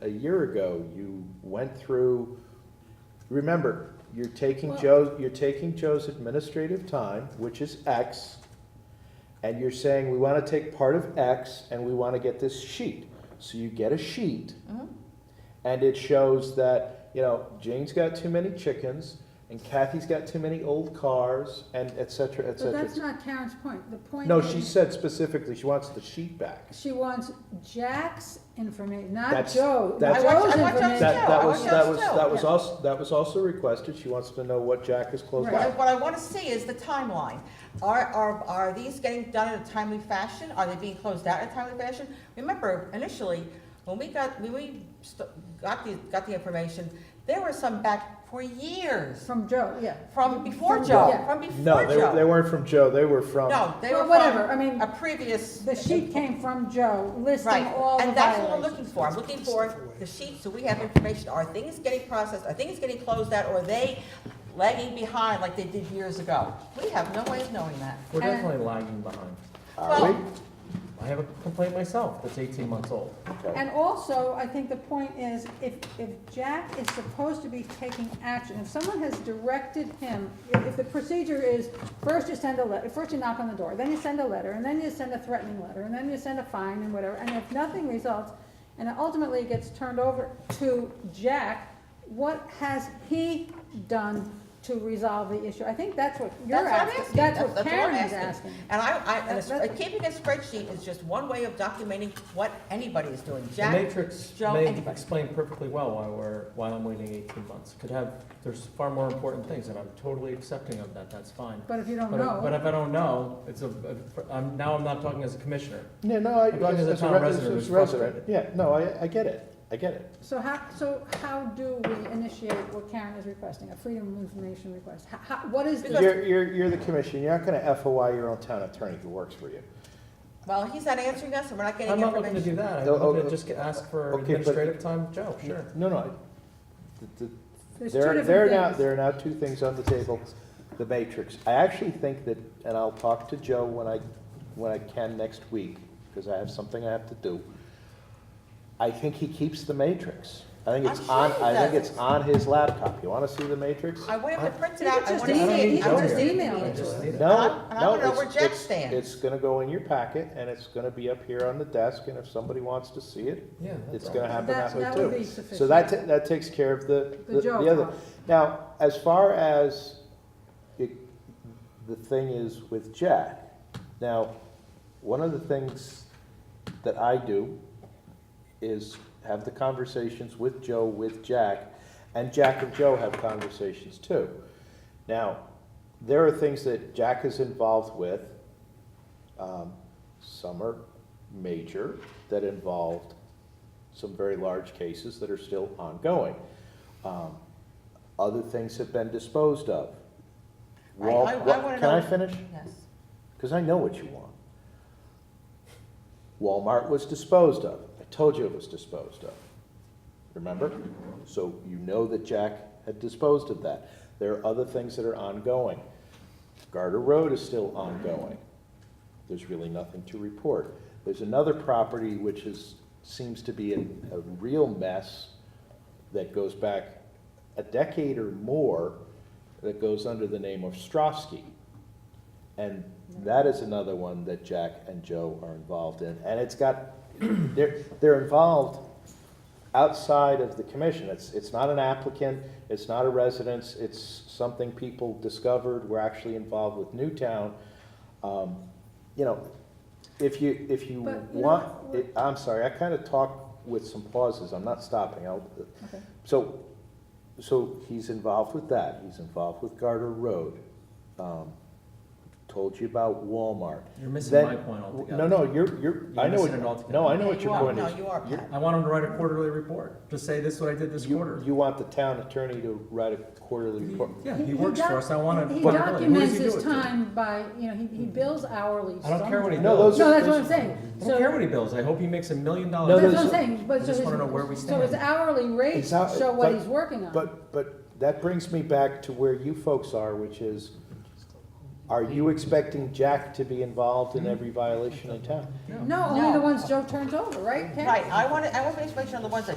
a year ago, you went through, remember, you're taking Well- Joe, you're taking Joe's administrative time, which is X, and you're saying, we want to take part of X and we want to get this sheet. So you get a sheet, Mm-hmm. and it shows that, you know, Jane's got too many chickens, and Kathy's got too many old cars, and et cetera, et But cetera. that's not Karen's point. The point No, she is, said specifically, she wants the sheet back. she wants Jack's information, not That's- Joe. that's- Joe's I want- I want Joe's information. That, Yeah, that I was, want that Joe's was, too, that was yeah. also, that was also requested, she wants to know what Jack is closed Right. What I- by. what I want to see is the timeline. Are, are, are these getting done in a timely fashion? Are they being closed out in a timely fashion? Remember, initially, when we got, when we st- got the, got the information, there were some back for years, From Joe, yeah. from before From Joe, Joe. from before No, they, they Joe. weren't from Joe, they were from, No, they Well, were whatever, from I mean, a previous. the sheet came from Joe listing Right, all the and that's what we're violations. looking for, I'm looking for the sheet, so we have information, are things getting processed, are things getting closed out, or are they lagging behind like they did years ago? We have no way of knowing that. We're And- definitely lagging behind. are Well- we? I have a complaint myself that's eighteen months old. And also, I think the point is, if, if Jack is supposed to be taking action, if someone has directed him, if if the procedure is, first you send a letter, first you knock on the door, then you send a letter, and then you send a threatening letter, and then you send a fine and whatever, and if nothing results, and it ultimately it gets turned over to Jack, what has he done to resolve the issue? I think that's what you're That's what I'm asking, asking. that's what I'm Karen is asking. And I, I, and That- that's- it's- keeping a spreadsheet is just one way of documenting what anybody is doing, The Jack, matrix Joe, may anybody. explain perfectly well why we're, why I'm waiting eighteen months. Could have, there's far more important things, and I'm totally accepting of that, that's fine. But if Oh, you don't But, if- but know, if I don't know, it's a, I'm, now I'm not talking as a commissioner. Yeah, no, I, As long as as the as a town re- as resident as is a resident, frustrated. yeah, no, I, I get it, I get it. so how, so how do we initiate what Karen is requesting, a freedom of information request? How- How, what is the, You're, you're, you're the commission, you're not gonna FOI your own town attorney who works for you. Well, he's not answering us, and we're not getting I'm not looking to information. do that, I'm No, oh, looking oh, to just get- ask for okay, but- administrative time, Joe, sure. No, no, I- the, the, there's two There, different there are now, things. there are now two things on the table, the matrix. I actually think that, and I'll talk to Joe when I, when I can next week, because I have something I have to do. I think he keeps the matrix. I think I'm it's sure on, he I think does. it's on his laptop. You wanna see the matrix? I want him to print it You out, could I just want to see email- you it, I could want to just see email it. it. I just need it. No, And I- and I no, wanna know it's- where Jack it's- stands. It's gonna go in your packet, and it's gonna be up here on the desk, and if somebody wants to see it, Yeah, it's that's gonna all. happen That- that way that would be too. So sufficient. that, ta- that takes care of the, The the Joe the other. problem. Now, as far as it, the thing is with Jack, now, one of the things that I do is have the conversations with Joe, with Jack, and Jack and Joe have conversations too. Now, there are things that Jack is involved with, um, some are major, that involved some very large cases that are still ongoing. Um, Other things have been disposed of. I- I- Wal- I Wa- wanna Can I know- finish? Yes. Because I know what you want. Walmart was disposed of. I told you it was disposed of. Remember? So you know that Jack had disposed of that. There are other things that are ongoing. Garter Road is still ongoing. There's really nothing to report. There's another property which is, seems to be in a real mess that goes back a decade or more that goes under the name of Strofsky. And that is another one that Jack and Joe are involved in, and it's got, they're, they're involved outside of the commission, it's, it's not an applicant, it's not a residence, it's something people discovered, we're actually involved with Newtown. Um, You know, if you, if you But, you know, want, we're- it- I'm sorry, I kind of talk with some pauses, I'm not stopping, I'll, Okay. so, so he's involved with that, he's involved with Garter Road, um, told you about Walmart. You're missing Then- my point altogether. No, no, you're, you're, I know, missing it what- altogether. no, I know Yeah, what you your are. point No, is. you are, You're- Pat. I want him to write a quarterly report, to say this is what I did this quarter. You, you want the town attorney to write a quarterly Mm-hmm. report. Yeah, he works for us, I want to. He documents his time by, you know, he, he bills hourly. I don't care what he somewhere. No, those does. are- No, that's what I'm saying. I don't care So, what he bills, I hope he makes a million No, dollars. that's those- what I'm saying, I but just so his, wanna know where we so his stand. hourly rates It's out- show what but- he's working on. But, but that brings me back to where you folks are, which is, are you expecting Jack to be involved in every violation in town? No. No, only the No. ones Joe turns over, right? Karen? Right, I want to, I want information on the ones that